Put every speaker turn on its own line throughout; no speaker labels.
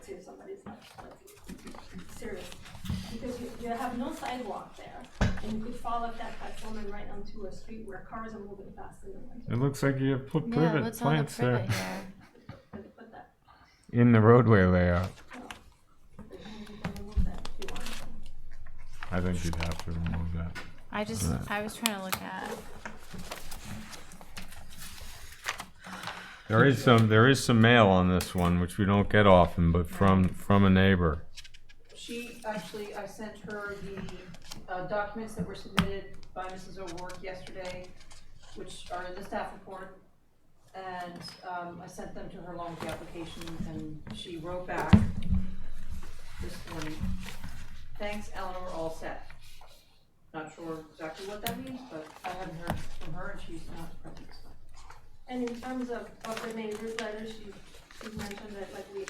see if somebody's like, like, serious. Because you, you have no sidewalk there, and you could fall off that platform and right onto a street where cars are moving fast in the winter,
It looks like you have put
Yeah,
privet
what's all the
plants there
privet here?
but they put that,
in the roadway layout.
you know, they can remove that if you want.
I think you'd have to remove that.
I just,
Right.
I was trying to look at,
There is some, there is some mail on this one, which we don't get often, but from, from a neighbor.
She, actually, I sent her the uh, documents that were submitted by Mrs. O'Rourke yesterday, which are in the staff report. And um, I sent them to her along with the application, and she wrote back this morning. Thanks, Eleanor, all set. Not sure exactly what that means, but I haven't heard from her, and she's not present, so.
And in terms of, of the neighbor's letter, she, she mentioned that like we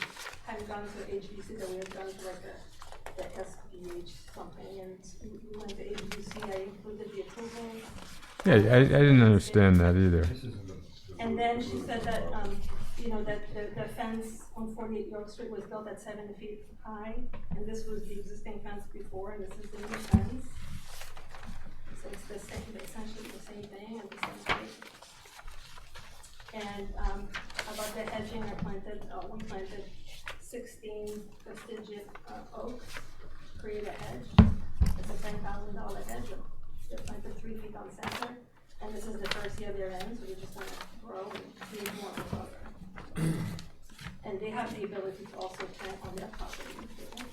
had gone to HBC, that we had gone to like a, the SBH something, and we went to HBC, I included the approval.
Yeah, I, I didn't understand that either.
And then she said that, um, you know, that the, the fence on forty-eight York Street was built at seven feet high, and this was the existing fence before, and this is the new fence. So it's the same, essentially the same thing and the same place. And, um, about the edging, I planted, uh, we planted sixteen prestigious, uh, oaks, create a hedge. It's a ten thousand dollar hedge, they're planted three feet on center. And this is the first year they're in, so we just want to grow and create more of a program. And they have the ability to also plant on their property if they want.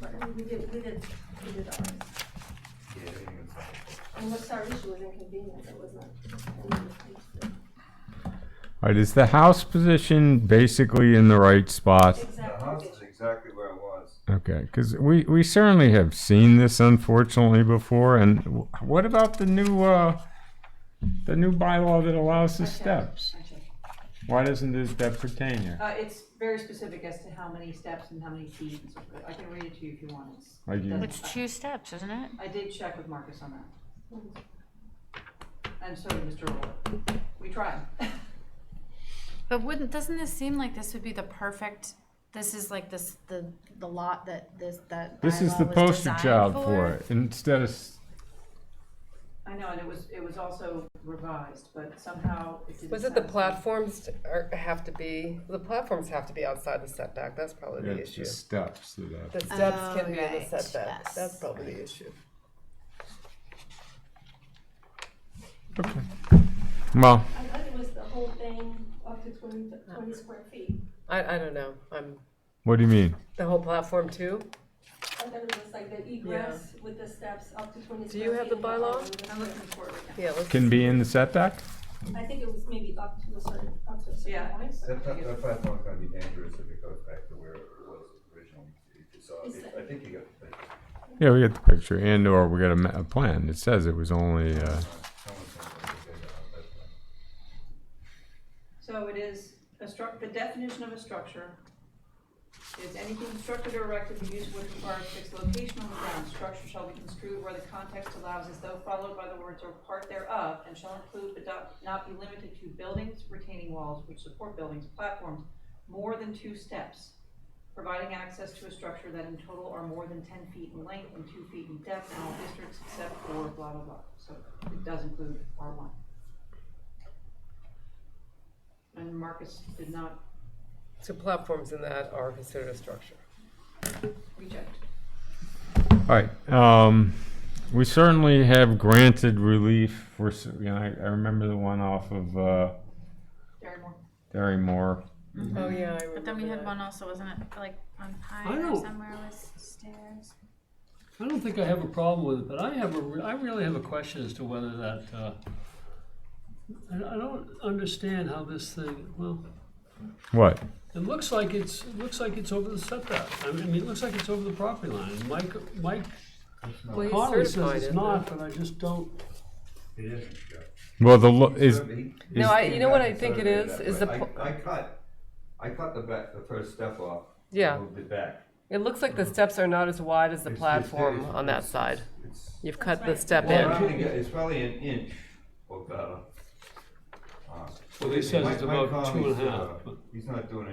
But we we did, we did, we did ours. And what's our issue was inconvenience, it was not. it was not-
All right, is the house position basically in the right spot?
The house
Exactly.
is exactly where it was.
Okay, because we, we certainly have seen this unfortunately before, and wh- what about the new, uh, the new bylaw that allows the steps?
I checked.
Why doesn't this, that pertain here?
Uh, It's very specific as to how many steps and how many feet and so forth. I can read it to you if you want. It's-
I do.
that's-
it's two steps, isn't it?
I did check with Marcus on that. And so did Mr. Roller. We tried.
But wouldn't, doesn't this seem like this would be the perfect, this is like this, the, the lot that this, that
This is
bylaw
the
was
poster
designed
child for it, instead of, s-
I know, and it was, it was also revised, but somehow it didn't.
Was it the
satisfy-
platforms are, have to be, the platforms have to be outside the setback, that's probably the
it's the
issue.
steps to that.
The steps
Oh,
can be in the
right,
setback,
yes.
that's probably the issue.
Well,
I thought it was the whole thing up to 20 20 square feet.
I, I don't know, I'm,
what do you mean?
the whole platform too?
I thought it was like the egress with the steps up to twenty square feet.
Do you have the
and all
bylaw?
of this.
I'm looking for it.
Yeah, let's,
Can be in the setback?
I think it was maybe up to a certain, up to a certain
Yeah.
point.
That, that, that platform's gonna be dangerous if it goes back to where it was originally. If you saw it- I think you got the picture.
Yeah, we get the picture, and or we got a, ma- a plan. It says it was only, uh,
Someone's gonna put a picture on that plan.
So it is, a struc, the definition of a structure is anything constructed or erected the use which requires fixed location on the ground. Structure shall be construed where the context allows as though followed by the words or part thereof, and shall include but not- not be limited to buildings, retaining walls which support buildings, platforms, more than two steps, providing access to a structure that in total are more than ten feet in length and two feet in depth in all districts except for blah, blah, blah. So it does include R one. And Marcus did not
so platforms in that are considered a structure.
reject.
all right. Um, we certainly have granted relief for, s- you know, I, I remember the one off of, uh,
Darren
Derry Moore.
Mm-hmm.
Oh, yeah, I remember
But then we had
that.
one also, wasn't it, like on
I
Pine or
don't-
somewhere with stairs?
I don't think I have a problem with it, but I have a, re- I really have a question as to whether that, uh, I, I don't understand how this thing, well,
What?
it looks like it's, it looks like it's over the setback. I mean, it looks like it's over the property line. Mike, Mike
Well, he's certified,
Conley says
isn't
it's
he?
not, but I just don't,
It isn't, Joe.
Well, the, lo- is,
No, I, you know what I think it
Surveyed
is,
that way.
is the, pl-
I, I cut, I cut the back, the first step off. and
Yeah.
Moved it back.
it looks like the steps are not as wide as the
It's- it's-
platform
it's-
on that
it's-
side.
It's,
You've cut the
right.
step
Well,
in.
I'm gonna get- it's probably an inch or better. Uh,
Well, he says
Mike-
it's
Mike
about two
Conley's,
and a
uh,
half, but-
He's not doing